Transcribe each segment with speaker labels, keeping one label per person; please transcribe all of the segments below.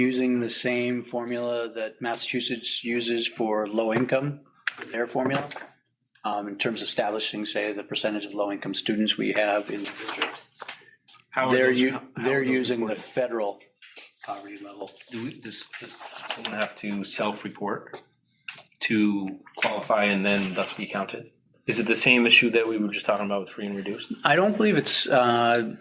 Speaker 1: using the same formula that Massachusetts uses for low income, their formula, um, in terms of establishing, say, the percentage of low income students we have in the district.
Speaker 2: How are
Speaker 1: They're,
Speaker 2: those-
Speaker 1: u-
Speaker 2: how- how
Speaker 1: they're
Speaker 2: are those
Speaker 1: using the
Speaker 2: reported?
Speaker 1: federal poverty level.
Speaker 2: Do we, does, does someone have to self-report to qualify and then thus be counted? Is it the same issue that we were just talking about with free and reduced?
Speaker 1: I don't believe it's, uh,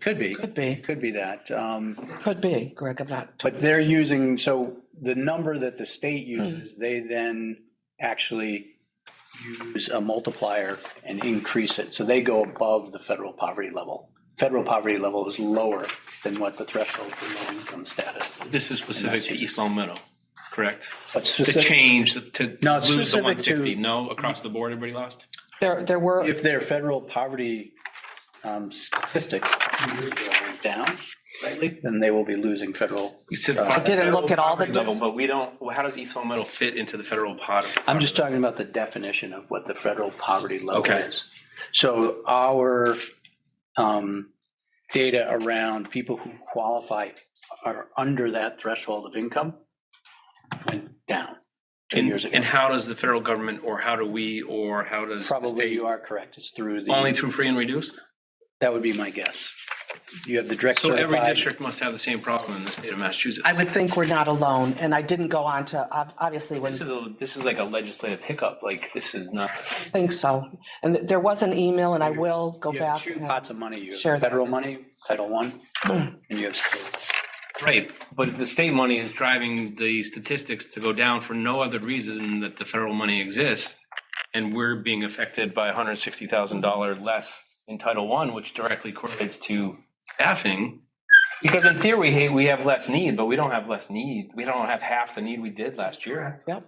Speaker 1: could be,
Speaker 3: Could be,
Speaker 1: could be that. Um,
Speaker 3: could be, Greg, I'm not,
Speaker 1: But they're using, so the number that the state uses, they then actually use a multiplier and increase it. So they go above the federal poverty level. Federal poverty level is lower than what the threshold for low income status. is.
Speaker 2: This is specific to East Long Meadow, correct?
Speaker 1: But
Speaker 2: To
Speaker 1: specific,
Speaker 2: change, the- to
Speaker 1: No,
Speaker 2: to
Speaker 1: it's
Speaker 2: lose the
Speaker 1: specific
Speaker 2: one sixty,
Speaker 1: to-
Speaker 2: no, across the board, everybody lost?
Speaker 3: there, there were,
Speaker 1: if their federal poverty um, statistic went down slightly, then they will be losing federal.
Speaker 2: You said.
Speaker 3: I didn't look at all the,
Speaker 2: Level,
Speaker 3: dis-
Speaker 2: but we don't, well, how does East Long Meadow fit into the federal pot?
Speaker 1: I'm just talking about the definition of what the federal poverty level
Speaker 2: Okay.
Speaker 1: is. So our um, data around people who qualify are under that threshold of income went down two years
Speaker 2: And,
Speaker 1: ago.
Speaker 2: and how does the federal government, or how do we, or how does the
Speaker 1: Probably
Speaker 2: state?
Speaker 1: you are correct. It's through
Speaker 2: Only
Speaker 1: the,
Speaker 2: through free and reduced?
Speaker 1: that would be my guess. You have the direct
Speaker 2: So every
Speaker 1: certified.
Speaker 2: district must have the same problem in the state of Massachusetts.
Speaker 3: I would think we're not alone, and I didn't go on to, ob- obviously, when,
Speaker 2: This is a, this is like a legislative hiccup, like this is not.
Speaker 3: I think so. And th- there was an email, and I will go
Speaker 1: You have
Speaker 3: back.
Speaker 1: two
Speaker 3: and-
Speaker 1: pots of money. You
Speaker 3: Share
Speaker 1: have
Speaker 3: that.
Speaker 1: federal money, Title I, and you have state.
Speaker 2: Right, but if the state money is driving the statistics to go down for no other reason that the federal money exists, and we're being affected by hundred sixty thousand dollar less in Title One, which directly correlates to staffing. Because in theory, hey, we have less need, but we don't have less need. We don't have half the need we did last year.
Speaker 3: Yep,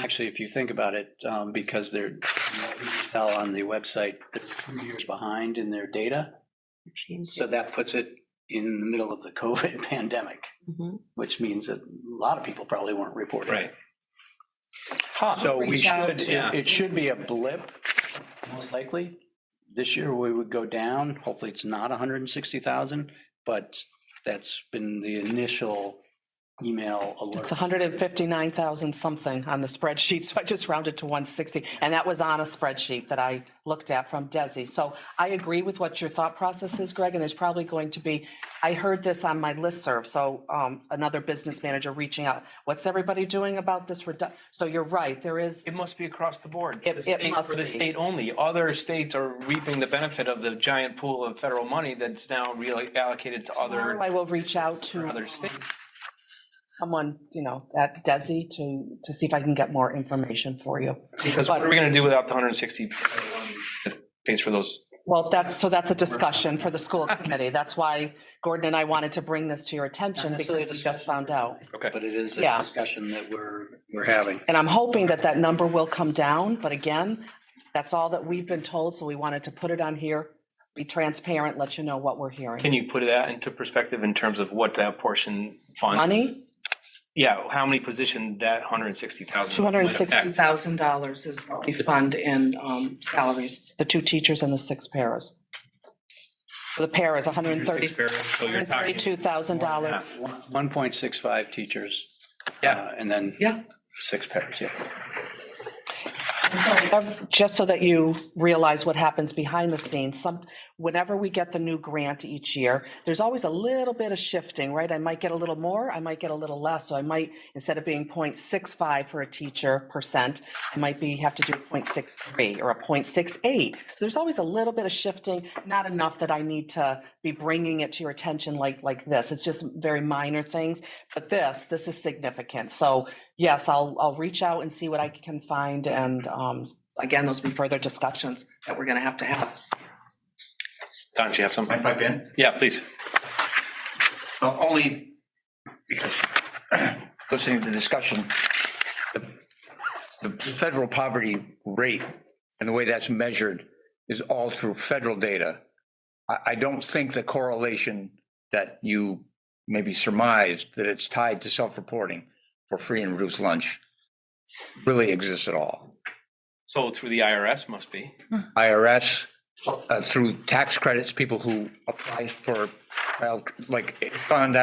Speaker 1: Actually, if you think about it, um, because they're, fell on the website, they're two years behind in their data. So that puts it in the middle of the COVID pandemic,
Speaker 3: Mhm.
Speaker 1: which means that a lot of people probably weren't reporting.
Speaker 2: Right.
Speaker 1: So we
Speaker 3: Oh, Reach out.
Speaker 1: should, it it should be a blip, most likely. This year, we would go down. Hopefully, it's not 160,000, but that's been the initial email alert.
Speaker 3: it's 159,000 something on the spreadsheet, so I just rounded to 160, and that was on a spreadsheet that I looked at from Desi. So I agree with what your thought process is, Greg, and there's probably going to be, I heard this on my listserv, so um, another business manager reaching out, what's everybody doing about this redu, so you're right, there is,
Speaker 2: It must be across the board.
Speaker 3: It-
Speaker 2: The
Speaker 3: it
Speaker 2: state-
Speaker 3: must
Speaker 2: For the
Speaker 3: be.
Speaker 2: state only. Other states are reaping the benefit of the giant pool of federal money that's now reallocated to other,
Speaker 3: I will reach out to
Speaker 2: other states.
Speaker 3: someone, you know, at Desi to, to see if I can get more information for you.
Speaker 2: Because what are we gonna do without the hundred and sixty pays for those?
Speaker 3: Well, that's, so that's a discussion for the school committee. That's why Gordon and I wanted to bring this to your attention because we just found out.
Speaker 2: Okay.
Speaker 1: But it is a
Speaker 3: Yeah.
Speaker 1: discussion that we're, we're having.
Speaker 3: And I'm hoping that that number will come down, but again, that's all that we've been told, so we wanted to put it on here, be transparent, let you know what we're hearing.
Speaker 2: Can you put that into perspective in terms of what that portion fund?
Speaker 3: Money,
Speaker 2: Yeah, how many position that hundred and sixty thousand?
Speaker 3: two hundred and sixty
Speaker 2: thousand.
Speaker 3: thousand dollars is what we fund in um, salaries, the two teachers and the six paras. The para is hundred and thirty,
Speaker 2: So you're talking,
Speaker 3: thirty-two thousand dollars.
Speaker 2: half.
Speaker 1: 1.65 teachers.
Speaker 2: Yeah.
Speaker 1: uh, And then
Speaker 3: Yeah.
Speaker 1: six pairs, yeah.
Speaker 3: Ev- Just so that you realize what happens behind the scenes, some, whenever we get the new grant each year, there's always a little bit of shifting, right? I might get a little more, I might get a little less, so I might, instead of being 0.65 for a teacher percent, I might be, have to do 0.63 or a 0.68. So there's always a little bit of shifting, not enough that I need to be bringing it to your attention like, like this. It's just very minor things, but this, this is significant. So yes, I'll, I'll reach out and see what I can find and, um, again, those will be further discussions that we're gonna have to have.
Speaker 2: Don, do you have something?
Speaker 4: Mind if I pipe in?
Speaker 2: Yeah, please.
Speaker 4: Well, only because listening to the discussion, the the federal poverty rate and the way that's measured is all through federal data. I, I don't think the correlation that you maybe surmised that it's tied to self-reporting for free and reduced lunch really exists at all.
Speaker 2: So through the IRS must be.
Speaker 4: IRS, uh, through tax credits, people who apply for, child- like, found